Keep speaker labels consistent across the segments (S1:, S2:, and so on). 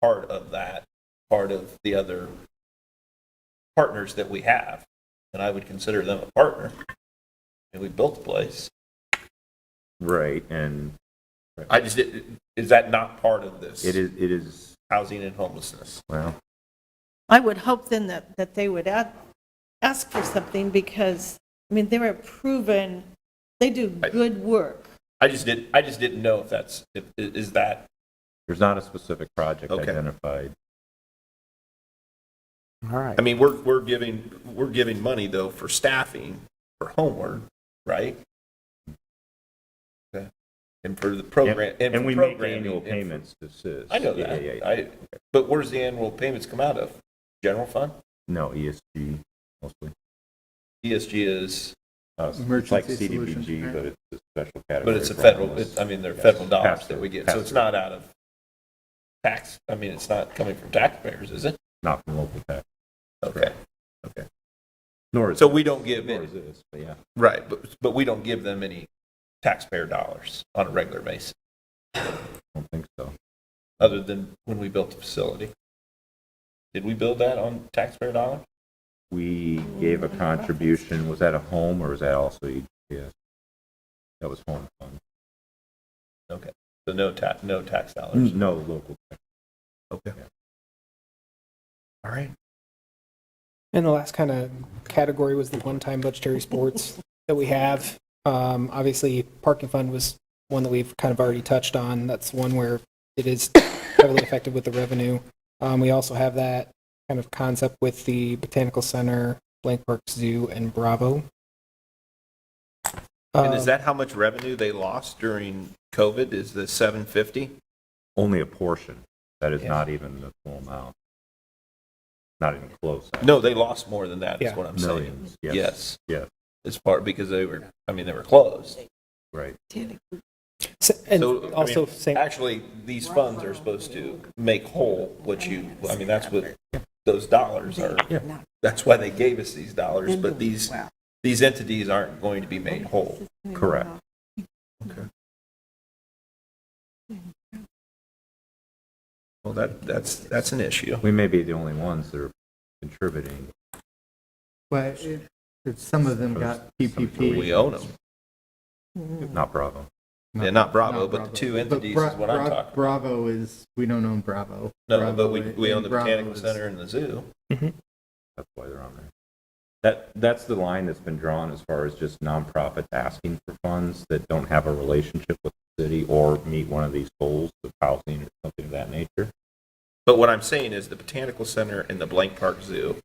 S1: part of that, part of the other partners that we have. And I would consider them a partner. And we built the place.
S2: Right, and
S1: I just, is that not part of this?
S2: it is, it is,
S1: Housing and homelessness.
S2: well,
S3: I would hope then that, that they would ask, ask for something because, I mean, they're a proven, they do
S1: Right.
S3: good work.
S1: I just didn't, I just didn't know if that's, if, i- is that,
S2: there's not a specific project
S1: Okay.
S2: identified.
S4: All right.
S1: I mean, we're, we're giving, we're giving money though for staffing, for homework, right? Okay. And for the program.
S2: And
S1: for
S2: and we make
S1: programming,
S2: annual
S1: and for-
S2: payments to SIS.
S1: I know
S2: Yeah, yeah,
S1: that. I,
S2: yeah.
S1: but where's the annual payments come out of? General fund?
S2: No, ESG mostly.
S1: ESG E is,
S2: Uh, It's like
S4: Emergency solutions.
S2: CDBG, but it's a special category.
S1: but it's a
S2: for
S1: federal,
S2: homeless.
S1: it- I mean, they're
S2: Yes.
S1: federal dollars
S2: Pass-through,
S1: that we get. So it's
S2: pass-through.
S1: not out of tax, I mean, it's not coming from taxpayers, is it?
S2: Not from local tax,
S1: Okay.
S2: nor is.
S1: So we don't give,
S2: Nor
S1: any-
S2: is this, but yeah.
S1: right, but, but we don't give them any taxpayer dollars on a regular basis,
S2: I don't think so.
S1: other than when we built the facility. Did we build that on taxpayer dollars?
S2: We gave a contribution, was that a home or was that also EGS? That was home fund,
S1: Okay, so no tax, no tax dollars.
S2: no local. tax.
S1: Okay.
S2: Yeah.
S1: All right.
S4: And the last kind of category was the one-time budgetary sports that we have. Um, obviously, parking fund was one that we've kind of already touched on. That's one where it is heavily affected with the revenue. Um, we also have that kind of concept with the Botanical Center, Blank Park Zoo, and Bravo.
S1: And
S4: Um,
S1: is that how much revenue they lost during COVID? Is the seven fifty?
S2: Only a portion, that is
S1: Yeah.
S2: not even the full amount. Not even close. actually.
S1: No, they lost more than that. Is
S4: Yeah.
S1: what I'm saying.
S2: Millions, yes, Yeah.
S1: it's part because they were. I mean, they were closed.
S2: right.
S4: s- and
S1: so, I mean,
S4: also same,
S1: Actually, these funds are supposed to make whole what you. I mean, that's what those dollars are. That's why they gave us these dollars. But these these entities aren't going to be made whole.
S2: Correct.
S1: Well, that that's that's an issue.
S2: We may be the only ones that are contributing.
S5: Well, it, it, some of them got PPP.
S1: We own them.
S2: Not Bravo.
S1: Yeah, not Bravo, but the two entities
S5: Bra-
S1: is what I'm
S5: Bra-
S1: talking about.
S5: Bravo is, we don't own Bravo.
S1: No,
S5: Bravo
S1: but we,
S5: i-
S1: we own
S5: and
S1: the
S5: Bravo
S1: Botanical
S5: is-
S1: Center and the zoo.
S2: That's why they're on there. That, that's the line that's been drawn as far as just nonprofits asking for funds that don't have a relationship with the city or meet one of these goals of housing or something of that nature.
S1: But what I'm saying is the Botanical Center and the Blank Park Zoo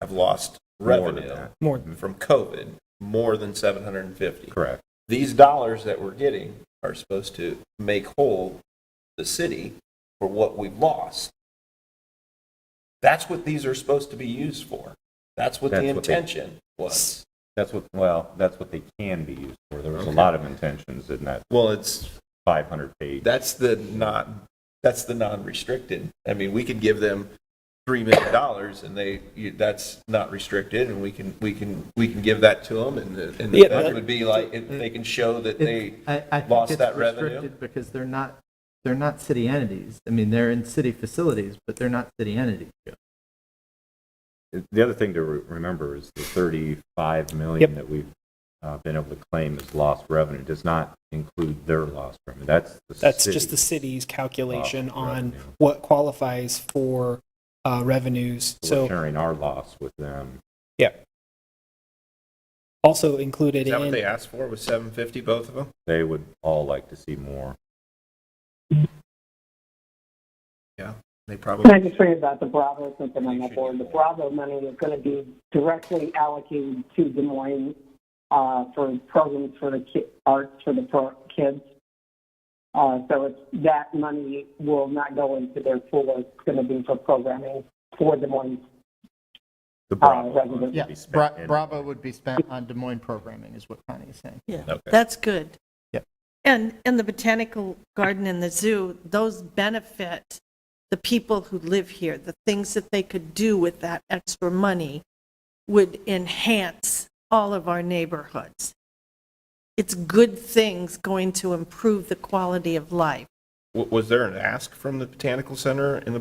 S1: have lost
S2: More than
S1: revenue
S2: that.
S4: more
S1: from COVID more than 750.
S2: Correct.
S1: These dollars that we're getting are supposed to make whole the city for what we've lost. That's what these are supposed to be used for. That's what the
S2: That's what they-
S1: intention was.
S2: That's what, well, that's what they can be used for. There was a lot of intentions in that
S1: Well, it's,
S2: 500 page.
S1: that's the not, that's the non-restricted. I mean, we could give them $3 million and they, you- that's not restricted and we can, we can, we can give that to them and the- and the
S4: Yeah,
S1: that
S4: that-
S1: would be like, if they can show that they,
S5: It- I, I think
S1: lost that
S5: it's
S1: revenue?
S5: restricted because they're not, they're not city entities. I mean, they're in city facilities, but they're not city entities.
S2: The other thing to re- remember is the 35 million
S4: Yep.
S2: that we've uh, been able to claim as lost revenue does not include their lost revenue. That's the
S4: That's
S2: city.
S4: just the city's calculation
S2: Off
S4: on
S2: revenue.
S4: what qualifies for uh, revenues.
S2: We're
S4: So
S2: sharing our loss with them.
S4: also included
S1: is that what they
S4: in,
S1: asked for, was 750, both of them?
S2: They would all like to see more.
S1: They
S6: Can
S1: probably,
S6: I just bring about the Bravo, something on that board? The Bravo money is going to be directly allocated to Des Moines uh, for programs for the ki- arts for the pro- kids. Uh, so it's, that money will not go into their pool. It's going to be for programming for Des Moines.
S2: The Bravo
S6: revenue.
S2: funds would
S5: Yeah,
S2: be spent
S5: Bra-
S2: in-
S5: Bravo would be spent on Des Moines programming is what Connie is saying.
S3: Yeah,
S2: Okay.
S3: that's good.
S5: Yep.
S3: And, and the botanical garden and the zoo, those benefit the people who live here. The things that they could do with that extra money would enhance all of our neighborhoods. It's good things going to improve the quality of life.
S1: wa- was there an ask from the Botanical Center and the